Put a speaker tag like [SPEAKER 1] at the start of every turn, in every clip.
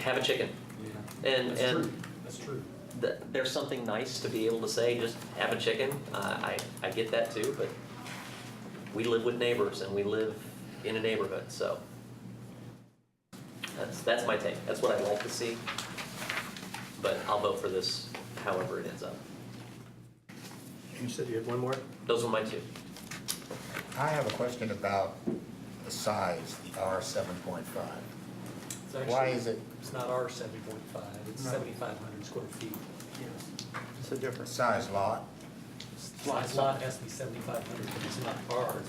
[SPEAKER 1] have a chicken. And,
[SPEAKER 2] That's
[SPEAKER 1] and
[SPEAKER 2] true. That's true.
[SPEAKER 1] th- there's something nice to be able to say, just have a chicken. Uh, I, I get that too, but we live with neighbors and we live in a neighborhood, so. That's, that's my take. That's what I'd like to see. But I'll vote for this however it ends up.
[SPEAKER 3] You said you had one more?
[SPEAKER 1] Those were my two.
[SPEAKER 4] I have a question about the size, the R seven point five.
[SPEAKER 2] It's
[SPEAKER 4] Why
[SPEAKER 2] actually-
[SPEAKER 4] is it-
[SPEAKER 2] It's not our seventy point five, it's
[SPEAKER 3] No.
[SPEAKER 2] seventy-five hundred square feet.
[SPEAKER 3] It's a difference.
[SPEAKER 4] Size lot,
[SPEAKER 2] Size lot has to be seventy-five hundred, it's not ours.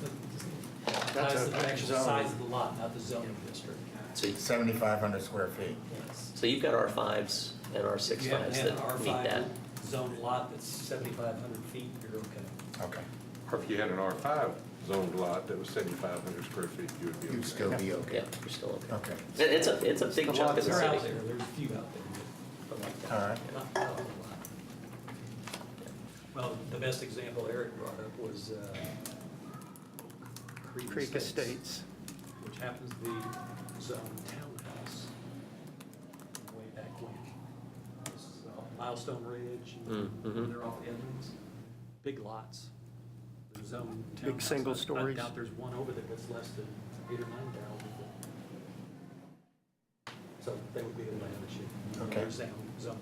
[SPEAKER 3] That's
[SPEAKER 2] That's
[SPEAKER 3] a
[SPEAKER 2] the actual
[SPEAKER 3] zoning.
[SPEAKER 2] size of the lot, not the zoning district.
[SPEAKER 1] So, you-
[SPEAKER 4] seventy-five hundred square feet.
[SPEAKER 2] Yes.
[SPEAKER 1] so you've got R fives and R six
[SPEAKER 2] You have
[SPEAKER 1] fives
[SPEAKER 2] an
[SPEAKER 1] that meet that.
[SPEAKER 2] R5 zone lot that's seventy-five hundred feet, you're okay.
[SPEAKER 4] Okay,
[SPEAKER 5] Or if you had an R5 zoned lot that was 7,500 square feet, you would be okay.
[SPEAKER 4] you'd still be
[SPEAKER 1] Yeah,
[SPEAKER 4] okay.
[SPEAKER 1] you're still okay.
[SPEAKER 4] Okay,
[SPEAKER 1] It- It's a, it's a big
[SPEAKER 2] The
[SPEAKER 1] chunk of
[SPEAKER 2] lots
[SPEAKER 1] the
[SPEAKER 2] are
[SPEAKER 1] city.
[SPEAKER 2] out there, there's a few out there, but like that.
[SPEAKER 4] all right.
[SPEAKER 2] Not- not a whole lot. Well, the best example Eric brought up was uh,
[SPEAKER 3] Creek Estates.
[SPEAKER 2] Which happens to be zone townhouse way back when. This is off Milestone Ridge,
[SPEAKER 1] Mm, mhm.
[SPEAKER 2] and they're off Edmonds, big lots. They're zone townhouse.
[SPEAKER 3] Big single
[SPEAKER 2] I-
[SPEAKER 3] stories.
[SPEAKER 2] I doubt there's one over there that's less than eight or nine thousand. So they would be a land issue.
[SPEAKER 4] Okay.
[SPEAKER 2] They're Zone, zone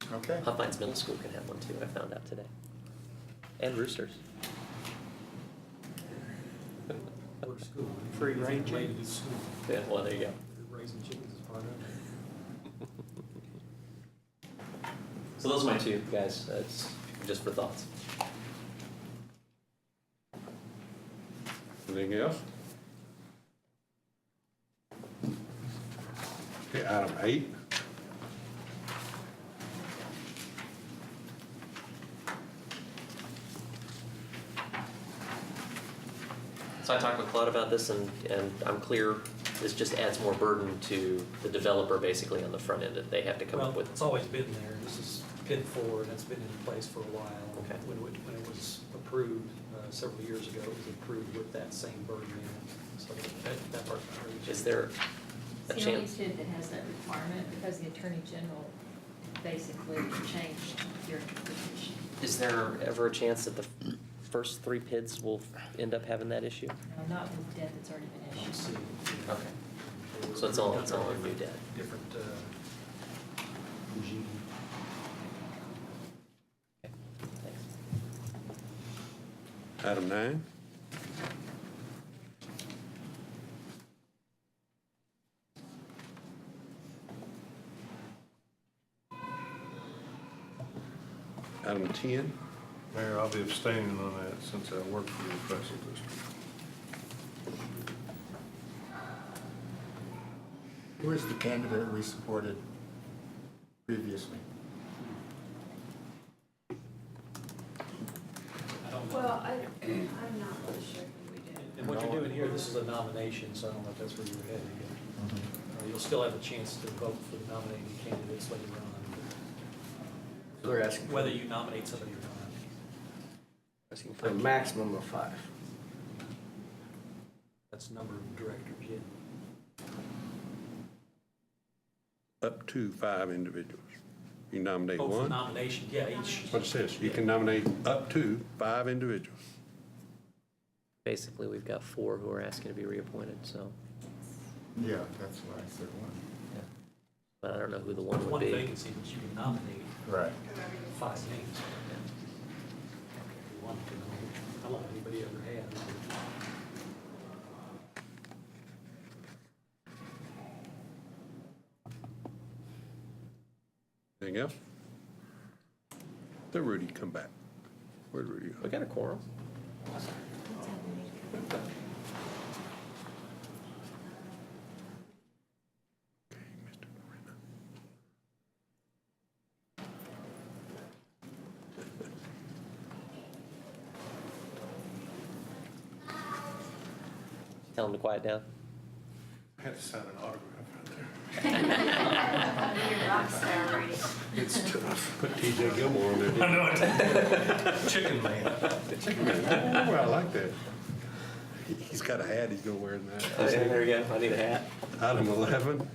[SPEAKER 2] townhouse.
[SPEAKER 4] Okay,
[SPEAKER 1] Huffines Middle School can have one too, I found out today. And Roosters.
[SPEAKER 2] Or school.
[SPEAKER 3] Free
[SPEAKER 2] Anything
[SPEAKER 3] range.
[SPEAKER 2] related to school.
[SPEAKER 1] Yeah, well, there you go.
[SPEAKER 2] Raising chickens is part of it.
[SPEAKER 1] So those are my two, guys, that's just for thoughts.
[SPEAKER 5] Anything else? Okay, item eight.
[SPEAKER 1] So I talked with Claude about this and, and I'm clear, this just adds more burden to the developer basically on the front end that they have to come up
[SPEAKER 2] Well,
[SPEAKER 1] with.
[SPEAKER 2] it's always been there. This is PIN four, and it's been in place for a while.
[SPEAKER 1] Okay.
[SPEAKER 2] When it, when it was approved, uh, several years ago, it was approved with that same burden in it. So that, that part's not really.
[SPEAKER 1] Is there a
[SPEAKER 6] It's the only
[SPEAKER 1] chance?
[SPEAKER 6] state that has that requirement because the Attorney General basically changed your interpretation.
[SPEAKER 1] Is there ever a chance that the first three PIDs will end up having that issue?
[SPEAKER 6] No, Not with debt that's already been
[SPEAKER 2] Let's
[SPEAKER 6] issued.
[SPEAKER 2] see.
[SPEAKER 1] Okay. So it's all- it's all on new debt.
[SPEAKER 2] Different, uh, regime.
[SPEAKER 1] Thanks.
[SPEAKER 5] Item nine. Item 10.
[SPEAKER 7] Mayor, I'll be abstaining on that since I work for the special district.
[SPEAKER 4] who is the candidate we supported previously?
[SPEAKER 2] I don't know.
[SPEAKER 8] Well, I, I'm not really sure who we did.
[SPEAKER 2] And what you're doing here, this is a nomination, so I don't know if that's where you were headed again. Uh, You'll still have a chance to vote for the nominated candidates later on,
[SPEAKER 9] They're asking,
[SPEAKER 2] whether you nominate somebody or not.
[SPEAKER 9] asking for a maximum of five.
[SPEAKER 2] That's number of directors, yeah.
[SPEAKER 5] up to five individuals. You nominate
[SPEAKER 2] Oh, for
[SPEAKER 5] one.
[SPEAKER 2] nomination, yeah, each,
[SPEAKER 5] What it says, you can nominate up to five individuals.
[SPEAKER 1] Basically, we've got four who are asking to be reappointed, so,
[SPEAKER 4] Yeah, that's why I said one.
[SPEAKER 1] yeah. But I don't know who the one
[SPEAKER 2] there's
[SPEAKER 1] would
[SPEAKER 2] one
[SPEAKER 1] be.
[SPEAKER 2] vacancy, but you can nominate
[SPEAKER 4] Right.
[SPEAKER 2] five names. One can nominate. I don't know if anybody ever has.
[SPEAKER 5] Anything else? Let Rudy come back. Where'd Rudy go?
[SPEAKER 1] We got a quorum.
[SPEAKER 6] It's happening.
[SPEAKER 5] Okay, Mr. Moreno.
[SPEAKER 1] Tell him to quiet down.
[SPEAKER 7] I had to sign an autograph.
[SPEAKER 8] You're a rock star, Brady.
[SPEAKER 7] It's tough.
[SPEAKER 5] Put TJ Gilmore on there. didn't you?
[SPEAKER 7] Chicken man.
[SPEAKER 5] Oh, I like that. He's got a hat he's gonna wear in that.
[SPEAKER 1] There you go. I need a hat.
[SPEAKER 5] Item 11.